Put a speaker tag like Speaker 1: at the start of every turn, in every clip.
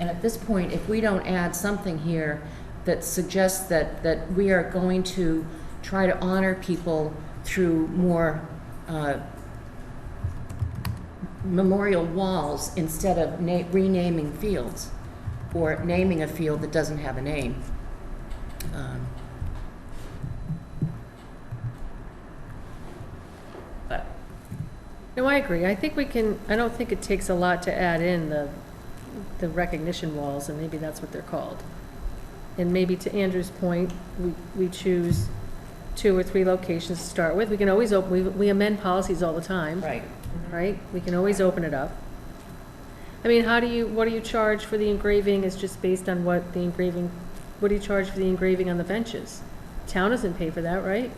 Speaker 1: And at this point, if we don't add something here that suggests that, that we are going to try to honor people through more uh, memorial walls instead of na- renaming fields, or naming a field that doesn't have a name. um, But,
Speaker 2: No, I agree. I think we can, I don't think it takes a lot to add in the, the recognition walls, and maybe that's what they're called. And maybe to Andrew's point, we, we choose two or three locations to start with. We can always open, we, we amend policies all the time,
Speaker 1: right.
Speaker 2: right? We can always open it up. I mean, how do you, what do you charge for the engraving is just based on what the engraving, what do you charge for the engraving on the benches? Town doesn't pay for that, right?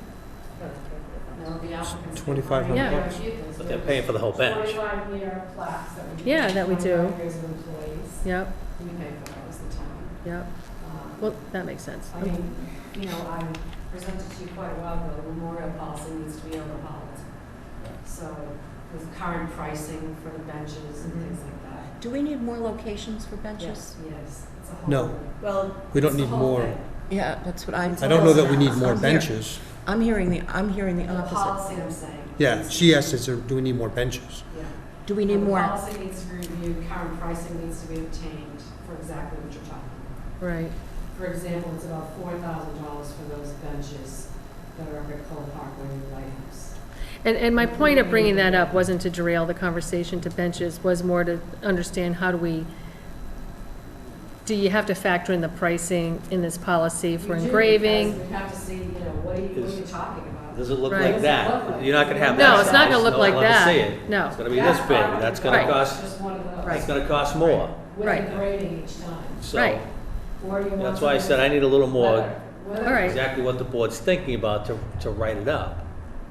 Speaker 3: No, the applicants.
Speaker 4: $2,500
Speaker 2: bucks.
Speaker 5: But they're paying for the whole bench.
Speaker 3: Forty-five year plaques that we.
Speaker 2: Yeah, that we do.
Speaker 3: 25 Years of employees,
Speaker 2: Yep,
Speaker 3: we pay for those, the town.
Speaker 2: yep.
Speaker 3: Um,
Speaker 2: Well, that makes sense.
Speaker 3: I mean, you know, I presented to you quite a while ago, the memorial policy needs to be overhauled. So with current pricing for the benches and things like that.
Speaker 1: Do we need more locations for benches?
Speaker 3: Yes, it's a whole.
Speaker 4: No.
Speaker 3: Well.
Speaker 4: We don't
Speaker 3: it's the
Speaker 4: need
Speaker 3: whole
Speaker 4: more.
Speaker 3: thing.
Speaker 1: Yeah, that's what I'm.
Speaker 4: I don't know that we need more
Speaker 1: I'm here.
Speaker 4: benches.
Speaker 1: I'm hearing the, I'm hearing the
Speaker 3: The
Speaker 1: opposite.
Speaker 3: policy I'm saying.
Speaker 4: Yeah,
Speaker 3: is-
Speaker 4: she asked, is there, do we need more benches?
Speaker 3: Yeah.
Speaker 1: Do we need
Speaker 3: The
Speaker 1: more?
Speaker 3: Policy needs to be reviewed, current pricing needs to be obtained for exactly what you're talking about.
Speaker 2: Right.
Speaker 3: For example, it's about four thousand dollars for those benches that are up at Cole Parkway and Lighthouse.
Speaker 2: And, and my point of bringing that up wasn't to derail the conversation to benches, was more to understand how do we, do you have to factor in the pricing in this policy for
Speaker 3: You do,
Speaker 2: engraving?
Speaker 3: because You have to see, you know, what are you, what are you talking about?
Speaker 5: Does it look
Speaker 2: Right.
Speaker 5: like that? You're not gonna have that
Speaker 2: No, it's not
Speaker 5: size.
Speaker 2: gonna look
Speaker 5: No one
Speaker 2: like
Speaker 5: will ever see
Speaker 2: that.
Speaker 5: it.
Speaker 2: No.
Speaker 5: It's gonna be this
Speaker 3: That's
Speaker 5: big.
Speaker 3: fine.
Speaker 5: That's gonna
Speaker 2: Right.
Speaker 5: cost,
Speaker 3: Just one of those.
Speaker 5: it's gonna cost more.
Speaker 3: With
Speaker 2: Right.
Speaker 3: the grading each time.
Speaker 5: So
Speaker 2: Right.
Speaker 3: Or you want.
Speaker 5: that's why I said I need a little more,
Speaker 3: All
Speaker 2: All right.
Speaker 5: exactly what the board's thinking about to, to write it up.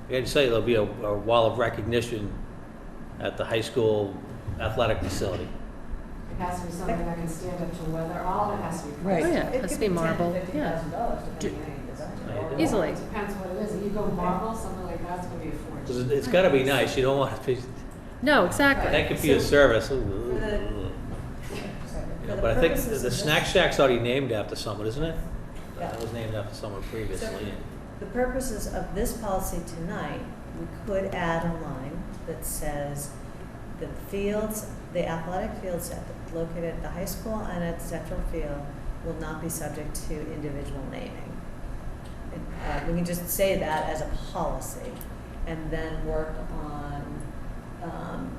Speaker 5: You had to say there'll be a, a wall of recognition at the high school athletic facility.
Speaker 3: It has to be something that can stand up to weather, all of it has to be.
Speaker 1: Right.
Speaker 2: Oh,
Speaker 3: priced.
Speaker 2: yeah, it has to be marble, yeah,
Speaker 5: Right.
Speaker 2: easily.
Speaker 3: Depends what it is. If you go marble, something like that's gonna be a fortune.
Speaker 5: 'Cause it- it's gotta be nice. You don't want to be,
Speaker 2: No, exactly.
Speaker 5: thank you for your service. Ooh, ooh,
Speaker 6: For the-
Speaker 5: ooh. You know,
Speaker 6: For the
Speaker 5: But I think
Speaker 6: purposes
Speaker 5: the
Speaker 6: of
Speaker 5: snack
Speaker 6: this-
Speaker 5: shack's already named after someone, isn't it?
Speaker 6: Yeah.
Speaker 5: That was named after someone previously.
Speaker 6: The purposes of this policy tonight, we could add a line that says the fields, the athletic fields at the- located at the high school and at Central Field will not be subject to individual naming. And, uh, We can just say that as a policy and then work on, um,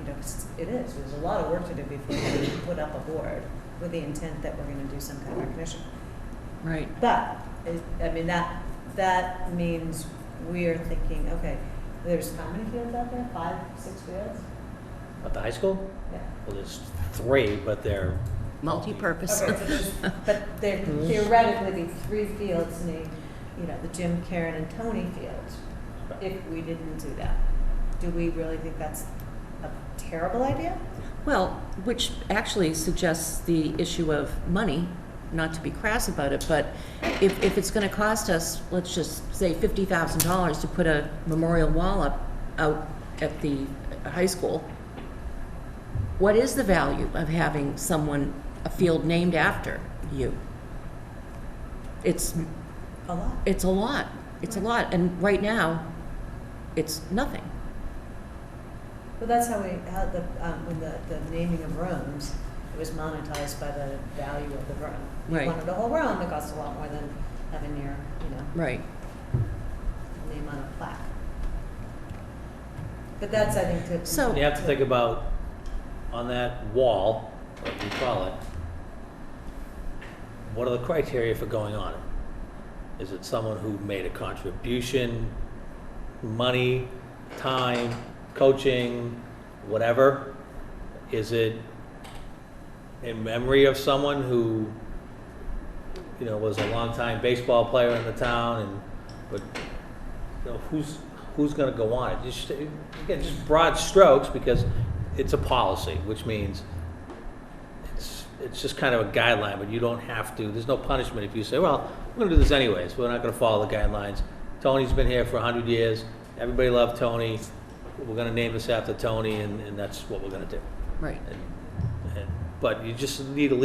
Speaker 6: you know, 'cause it is, there's a lot of work to do before we put up a board with the intent that we're gonna do some kind of recognition.
Speaker 1: Right.
Speaker 6: But, it- I mean, that, that means we are thinking, okay, there's how many fields out there? Five, six fields?
Speaker 5: At the high school?
Speaker 6: Yeah.
Speaker 5: Well, there's three, but they're,
Speaker 1: Multi-purpose.
Speaker 6: Okay, so just- But there theoretically, be three fields named, you know, the Jim, Karen, and Tony fields, if we didn't do that. Do we really think that's a terrible idea?
Speaker 1: Well, which actually suggests the issue of money, not to be crass about it, but if, if it's gonna cost us, let's just say fifty thousand dollars to put a memorial wall up, out at the high school, what is the value of having someone, a field named after you? It's,
Speaker 6: A lot.
Speaker 1: it's a lot, it's a lot, and right now, it's nothing.
Speaker 6: Well, that's how we, how the, um, when the, the naming of rooms, it was monetized by the value of the room.
Speaker 1: Right.
Speaker 6: You wanted a whole room, it costs a lot more than having your, you know,
Speaker 1: Right.
Speaker 6: name on a plaque. But that's, I think, to.
Speaker 1: So-
Speaker 5: and you have to think about, on that wall, what you call it, what are the criteria for going on it? Is it someone who made a contribution, money, time, coaching, whatever? Is it in memory of someone who, you know, was a longtime baseball player in the town and, but, you know, who's, who's gonna go on it? Just, again, just broad strokes because it's a policy, which means it's, it's just kind of a guideline, but you don't have to, there's no punishment if you say, well, we're gonna do this anyways, we're not gonna follow the guidelines. Tony's been here for a hundred years, everybody loved Tony, we're gonna name this after Tony and, and that's what we're gonna do.
Speaker 1: Right.
Speaker 5: And- and- But you just need a